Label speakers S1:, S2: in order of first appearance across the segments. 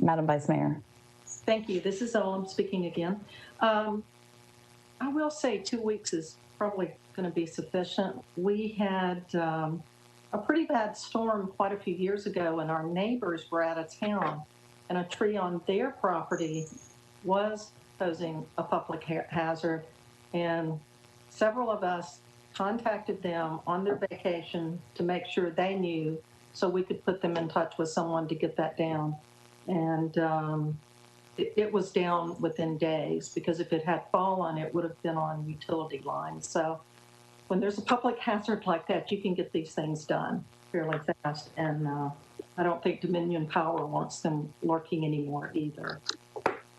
S1: Madam Vice Mayor.
S2: Thank you. This is Olam speaking again. Um, I will say two weeks is probably going to be sufficient. We had um, a pretty bad storm quite a few years ago, and our neighbors were out of town, and a tree on their property was posing a public ha- hazard. And several of us contacted them on their vacation to make sure they knew so we could put them in touch with someone to get that down. And um, it, it was down within days because if it had fallen, it would have been on utility lines. So when there's a public hazard like that, you can get these things done fairly fast. And uh, I don't think Dominion Power wants them lurking anymore either.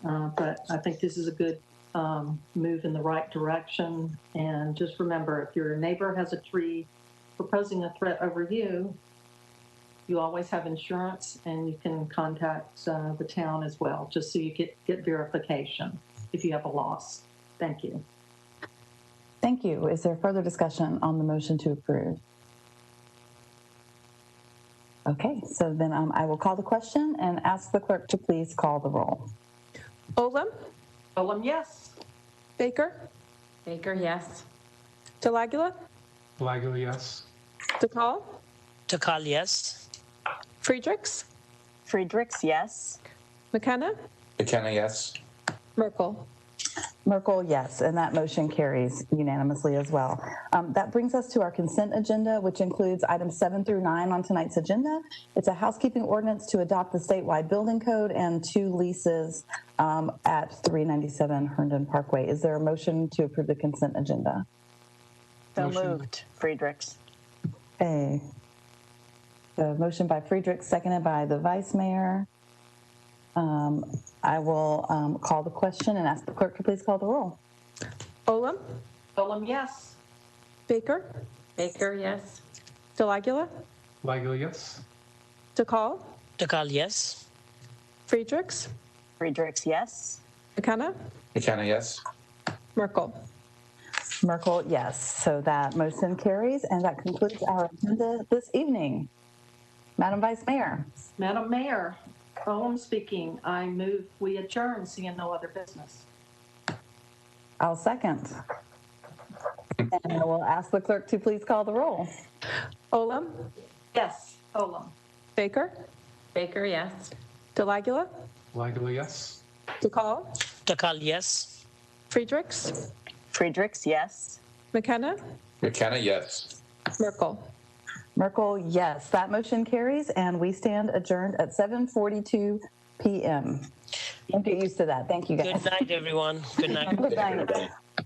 S2: Uh, but I think this is a good um, move in the right direction. And just remember, if your neighbor has a tree proposing a threat over you, you always have insurance and you can contact uh, the town as well, just so you get, get verification if you have a loss. Thank you.
S1: Thank you. Is there further discussion on the motion to approve? Okay, so then um, I will call the question and ask the clerk to please call the roll.
S3: Olem,
S2: Olem, yes.
S3: Baker,
S4: Baker, yes.
S3: Delagula,
S5: Flagel, yes.
S3: DeCall,
S6: Takal, yes.
S3: Friedrichs,
S7: Friedrichs, yes.
S3: McKenna,
S8: McKenna, yes.
S3: Merkel.
S1: Merkel, yes, and that motion carries unanimously as well. Um, that brings us to our consent agenda, which includes items seven through nine on tonight's agenda. It's a housekeeping ordinance to adopt the statewide building code and two leases um, at 397 Herndon Parkway. Is there a motion to approve the consent agenda?
S7: So
S5: Motion.
S7: moved. Friedrichs.
S1: Okay. The motion by Friedrich, seconded by the vice mayor. Um, I will um, call the question and ask the clerk to please call the roll.
S3: Olem,
S2: Olem, yes.
S3: Baker,
S4: Baker, yes.
S3: Delagula,
S5: Flagel, yes.
S3: DeCall,
S6: Takal, yes.
S3: Friedrichs,
S7: Friedrichs, yes.
S3: McKenna,
S8: McKenna, yes.
S3: Merkel.
S1: Merkel, yes. So that motion carries, and that concludes our agenda this evening. Madam Vice Mayor,
S2: Madam Mayor, Olem speaking. I move we adjourn, seeing no other business.
S1: I'll second. And I will ask the clerk to please call the roll.
S3: Olem,
S2: Yes, Olem.
S3: Baker,
S4: Baker, yes.
S3: Delagula,
S5: Flagel, yes.
S3: DeCall,
S6: Takal, yes.
S3: Friedrichs,
S7: Friedrichs, yes.
S3: McKenna,
S8: McKenna, yes.
S3: Merkel.
S1: Merkel, yes. That motion carries, and we stand adjourned at 7:42 p.m. Don't get used to that. Thank you, guys.
S6: Good night, everyone. Good night.
S1: Good night.